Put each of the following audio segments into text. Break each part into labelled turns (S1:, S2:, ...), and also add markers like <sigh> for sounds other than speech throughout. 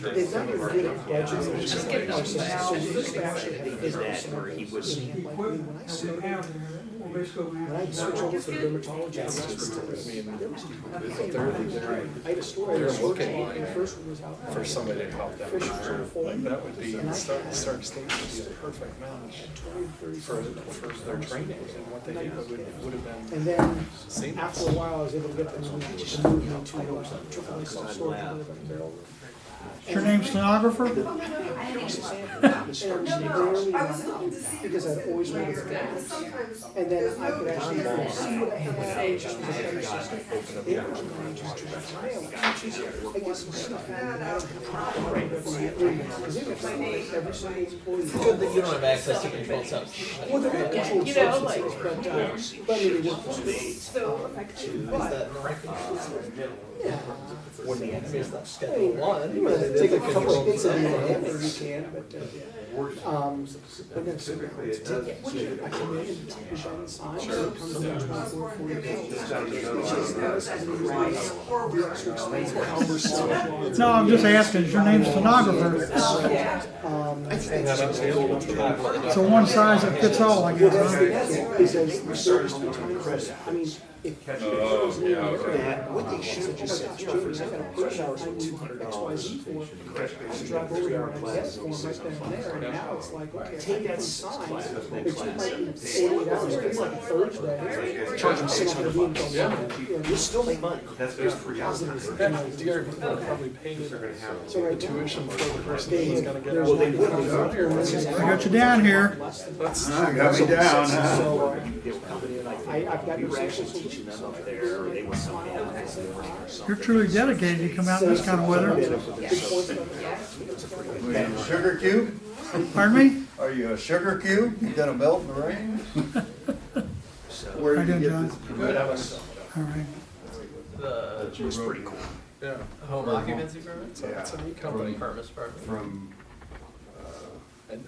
S1: They've done a really good budget.
S2: Just give them
S1: So you just
S2: that.
S1: actually had a-
S2: Is that where he was-
S1: When I
S3: So
S1: started,
S3: now, we're basically
S1: when I
S3: gonna have.
S1: searched over for dermatology, I was- I had a story.
S4: They're looking
S1: My
S4: like-
S1: first one was out.
S4: for somebody to help them.
S1: Fish were full.
S4: Like that would be, Stark, Stark State would be a perfect match for, for their training and what they do. It would, would have been
S1: And then after a
S4: seamless.
S1: while, I was able to get them to just move me to a triple A soft store.
S5: Your name stenographer?
S1: And they rarely enough, because I've always wanted to get this. And then I could actually see what I had to say. They were going just to retire. I guess it's not that I don't have a problem with the agreements, 'cause they were just like every single employee.
S6: Good that you don't have access to controlled substances.
S1: Well, they're not controlled
S2: You know, like-
S1: substances, but, uh, but I mean, they work for me.
S6: Is that not,
S1: uh, Yeah.
S6: I mean, it's not schedule one.
S1: You wanna take a couple of bits of it, or you can, but, uh, um, but then typically it does. I come in, we sign the sign, so it comes down to about four, four days. Which is not as nice, the extra expense, but how we're still-
S5: No, I'm just asking, is your name
S1: Um,
S5: stenographer?
S1: I think
S4: And
S1: that's.
S4: that was the old one.
S5: So one size that fits all, I
S1: Well,
S5: guess,
S1: that's the
S5: huh?
S1: thing, is as the service times, I mean, if. Oh, yeah, What they should have just said, you know, for example, push hours with two hundred X, Y, Z for. I drive over here and I get one right then and there, and now it's like, okay, take that sign. It took like forty-eight hours, it's like a Thursday. Charge them six hundred bucks. You still make money. That's very positive. you know,
S4: Dear, probably paid
S1: So
S4: the
S1: right now.
S4: tuition for the person
S1: They,
S4: who
S1: there's
S4: was gonna
S1: not.
S4: get it.
S5: I got you down here.
S1: Less than.
S4: That's,
S7: Got me down, huh?
S1: So, I, I've got. We were actually teaching them up there, they were
S5: You're truly dedicated to come out in this kind of weather.
S7: Are you a Sugar cube?
S5: Pardon me?
S7: Are you a sugar cube? You gonna melt in the rain?
S5: How you doing, John? All right.
S6: The
S7: pretty cool.
S4: yeah,
S6: home occupancy permit?
S4: so it's a new
S6: Company
S4: company.
S6: permits permit.
S7: From,
S4: And-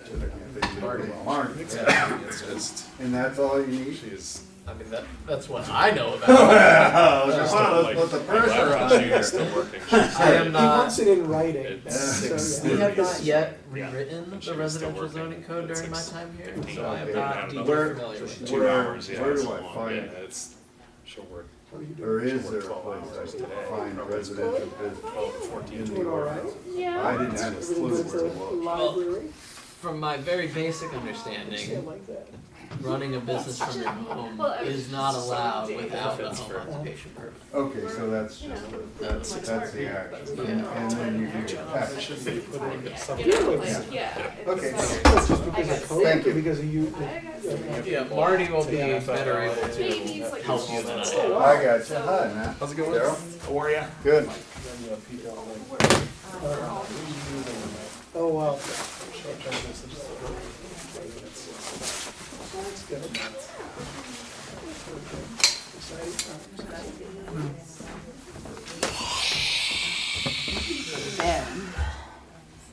S4: uh,
S7: Marty.
S4: Exactly, it's just,
S7: And that's all you need? <laughs> Oh,
S4: she's.
S6: I mean, that, that's what I know about.
S7: Let's put the pressure on you. <laughs>
S6: I am
S1: He wants
S6: not,
S1: it in writing.
S7: six
S1: So,
S6: we
S1: yeah.
S6: have not yet rewritten the residential zoning code during my time here, so I am not deeply
S7: Where-
S6: familiar with it.
S7: Where, where do I find,
S4: Yeah,
S7: it?
S4: it's, she'll work
S7: or is there a place I can find residential business?
S4: twelve, fourteen.
S7: in the world? I didn't have a clue
S1: Everyone goes to
S7: where
S1: the
S7: it was.
S1: library,
S6: From my very basic
S1: shit
S6: understanding,
S1: like that.
S6: running a business from your home is not allowed without a home occupation permit.
S7: Okay, so that's just, the- that's, that's the action. And then you do your tax. Okay.
S1: That's just because of COVID,
S7: Thank you.
S1: Because of you.
S6: Yeah, Marty will be better able to help you than I am.
S7: I got you. Hi, man.
S4: How's it going?
S7: Daryl?
S4: How are ya?
S7: Good.
S1: Oh, wow.
S8: Ben.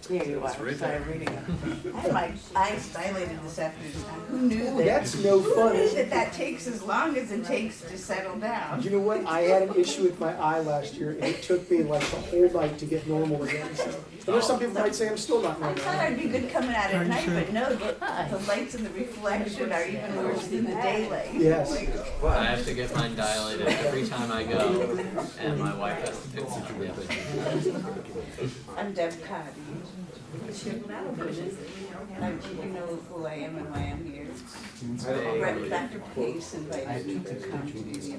S8: There you are, sorry, reading it. <laughs> I had my eyes dilated this afternoon, who knew that?
S1: That's no
S8: Who
S1: fun.
S8: knew
S1: is it?
S8: that that takes as long as it takes to settle down?
S1: You know what? I had an issue with my eye last year, and it took me like the whole night to get normal again. So, and there's some people might say I'm still not
S8: I
S1: normal.
S8: thought I'd be good coming out at night, but no, the, the lights and the reflection are even worse than the daylight.
S1: Yes.
S6: I have to get mine dilated every time I go, and my wife has to fix it. Yeah, but-
S8: I'm Deb Cotty. And I, you know who I am and why I'm here. Brett- Dr. Pace invited me to come to the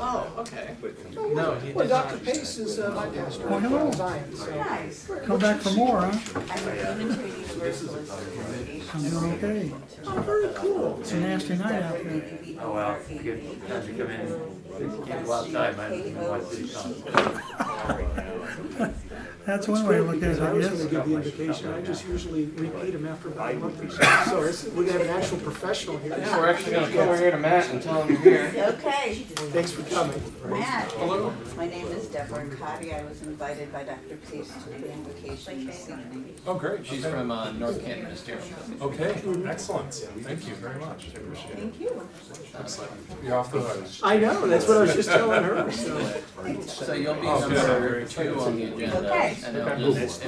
S6: Oh, okay. No, he
S1: Well,
S6: did not.
S1: Dr. Pace is uh, my pastor.
S5: Well, hello.
S1: Zion, so.
S8: Nice.
S5: Come back for more, huh?
S8: I'm a Unitarian Universalist Association.
S5: I'm doing okay.
S1: Oh, very cool.
S5: It's a nasty night out there. <laughs>
S8: Oh, well, good, glad you come in. Can't go outside, I didn't know what to
S5: That's one way to look at it,
S1: Because I
S5: I
S1: was gonna
S5: guess.
S1: give the invocation, I just usually repeat them after about a month
S9: <laughs>
S1: or so. So it's, we're gonna have an actual professional here.
S9: Yeah, we're actually gonna come over here to Matt and tell him you're here.
S8: Okay,
S1: Thanks for coming.
S8: Matt. My name is Deborah Cotty. I was invited by Dr. Pace to the invocation this evening.
S4: Oh, great.
S6: She's from uh, North Canton Ministerial.
S4: Okay, excellent. Thank you very much. I appreciate it.
S8: Thank you.
S4: Excellent. You're off the hook.
S1: I know, that's what I was just telling her, so.
S6: So you'll be
S4: Oh, good.
S6: number two on the agenda,
S8: Okay.
S6: and it'll just